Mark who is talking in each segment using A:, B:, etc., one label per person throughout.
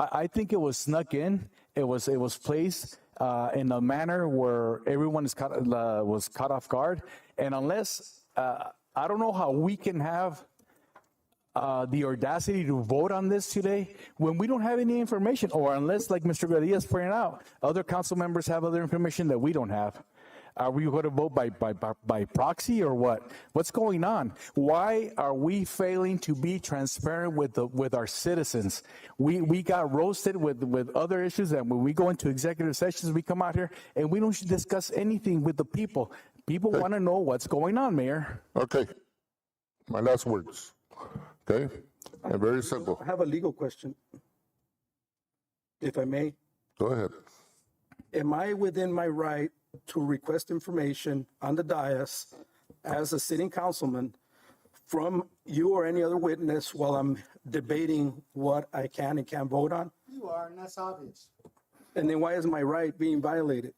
A: I, I think it was snuck in. It was it was placed uh, in a manner where everyone is caught, uh, was caught off guard. And unless uh, I don't know how we can have uh, the audacity to vote on this today when we don't have any information, or unless, like Mr. Garcia's pointed out, other council members have other information that we don't have. Are we going to vote by, by, by- by proxy or what? What's going on? Why are we failing to be transparent with the, with our citizens? We, we got roasted with, with other issues and when we go into executive sessions, we come out here and we don't discuss anything with the people. People want to know what's going on, Mayor.
B: Okay. My last words. Okay? And very simple.
C: I have a legal question. If I may,
B: Go ahead.
C: am I within my right to request information on the dais as a sitting councilman from you or any other witness while I'm debating what I can and can't vote on?
D: You are, and that's obvious.
C: And then why is my right being violated?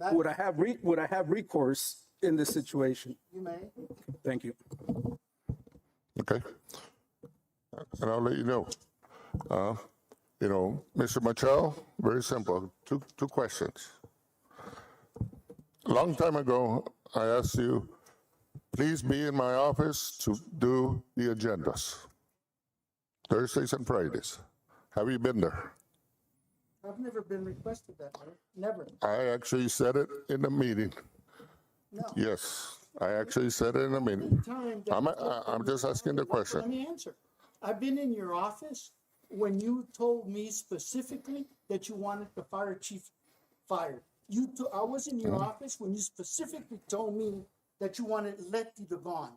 D: That-
C: Would I have, re- would I have recourse in this situation?
D: You may.
C: Thank you.
B: Okay? And I'll let you know. Uh, you know, Mr. Machado, very simple. Two, two questions. A long time ago, I asked you, please be in my office to do the agendas, Thursdays and Fridays. Have you been there?
D: I've never been requested that, way. never.
B: I actually said it in the meeting.
D: No.
B: Yes, I actually said it in the meeting.
D: Time that-
B: I'm, I- I'm just asking the
D: Let
B: question.
D: me answer. I've been in your office when you told me specifically that you wanted the fire chief fired. You, to- I was in your office when you specifically told me that you wanted Letty to gone.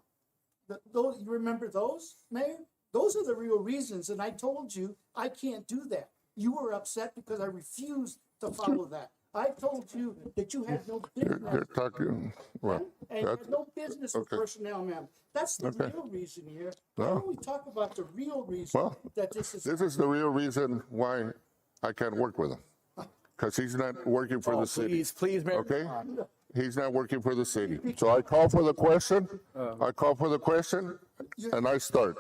D: Th- Those, you remember those, Mayor? Those are the real reasons, and I told you, I can't do that. You were upset because I refused to follow that. I told you that you had no
B: You're,
D: business
B: you're talking, well,
D: and you have
B: that-
D: no business with
B: okay.
D: personnel, ma'am. That's the
B: Okay.
D: real reason here.
B: No.
D: Why don't we talk about the real reason
B: Well,
D: that this is,
B: this is the real reason why I can't work with him. Because he's not working for the city,
A: Oh, Please, please, Mayor.
B: okay? He's not working for the city. So I call for the question, I call for the question, and I start.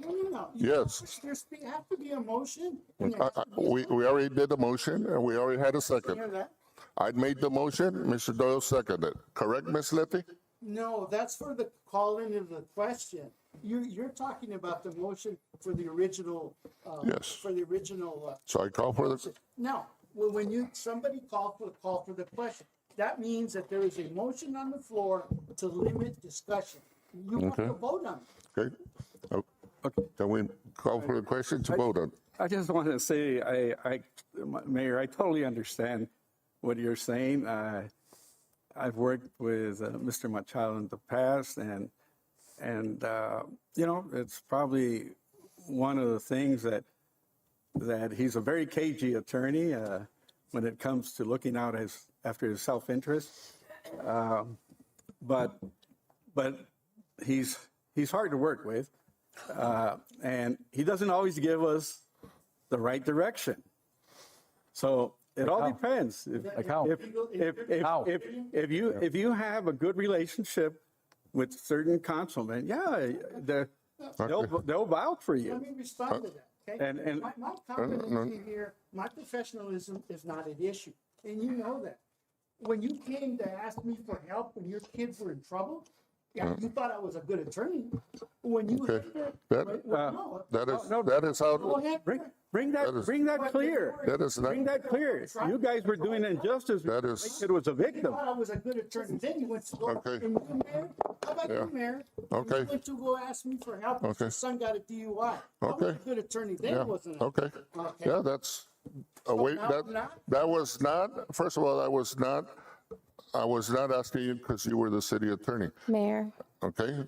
D: no, no, no.
B: Yes.
D: There's be- have to be a motion. and there
B: I-
D: has
B: I-
D: to be a
B: We, we already did the motion, and we already had a
D: second or
B: second.
D: that.
B: I made the motion, Mr. Doyle seconded. Correct, Ms. Letty?
D: No, that's for the calling of the question. You, you're talking about the motion for the original, uh,
B: Yes.
D: for the original, uh,
B: So I call for the,
D: No, well, when you, somebody called for the call for the question, that means that there is a motion on the floor to limit discussion. You have to
B: Okay.
D: vote on it.
B: okay? Oh, Can we call for the question to vote on?
E: I just want to say, I, I, Mayor, I totally understand what you're saying. Uh, I've worked with uh, Mr. Machado in the past and, and, uh, you know, it's probably one of the things that, that he's a very cagey attorney, uh, when it comes to looking out his, after his self-interest. Um, But, but he's, he's hard to work with. Uh, and he doesn't always give us the right direction. So it all depends. If,
A: Like how?
E: if, if, if,
A: How?
E: if, if you, if you have a good relationship with certain councilmen, yeah, the, they'll, they'll vouch for
D: Let
E: you.
D: me respond to that,
E: and-
D: okay?
E: and-
D: My, my competency here, my professionalism is not at issue, and you know that. When you came to ask me for help when your kids were in trouble, yeah, you thought I was a good attorney. When you.
B: Mm. Okay.
D: Well,
B: That-
D: no.
B: That is,
E: Uh, No, no.
B: that is
D: Go
B: how,
D: ahead.
E: Bring, bring that, bring that clear.
B: that is not,
E: Bring that clear. You guys were doing injustice.
B: That is-
E: It was a
D: You
E: victim.
D: thought I was a good attorney, then you went to go,
B: Okay.
D: and you, Mayor, how about
B: Yeah.
D: you, Mayor?
B: Okay.
D: You went to go ask me for help, because
B: Okay.
D: your son got a DUI. I was a
B: Okay.
D: good attorney
B: yeah,
D: then, wasn't I?
B: okay.
D: Okay.
B: Yeah, that's, uh, wait,
D: now-
B: that,
D: now-
B: that was not, first of all, that was not, I was not asking you because you were the city attorney,
F: Mayor,
B: okay?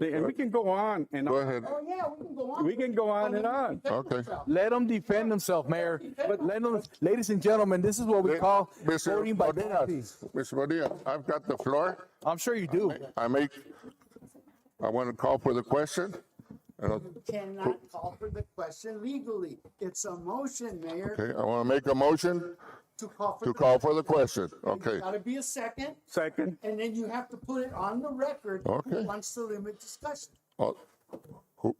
E: And we can go on and
B: Go ahead.
D: Oh, yeah, we can go on.
E: We can go on and on.
B: Okay.
A: Let him defend himself, Mayor. But let him, ladies and gentlemen, this is what we call
B: Mr.
A: voting by
B: Bonilla,
A: proxy.
B: Mr. Bonilla, I've got the floor.
A: I'm sure you do.
B: I make, I want to call for the question. and I'll-
D: Cannot call for the question legally. It's a motion, Mayor,
B: Okay, I want to make a motion
D: to call for.
B: to
D: the
B: call for the
D: question.
B: question. Okay,
D: There's Gotta be a second,
E: Second,
D: and then you have to put it on the record.
B: Okay.
D: Who wants to limit discussion?
B: Oh, who-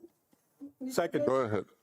E: second.
B: uh, go ahead.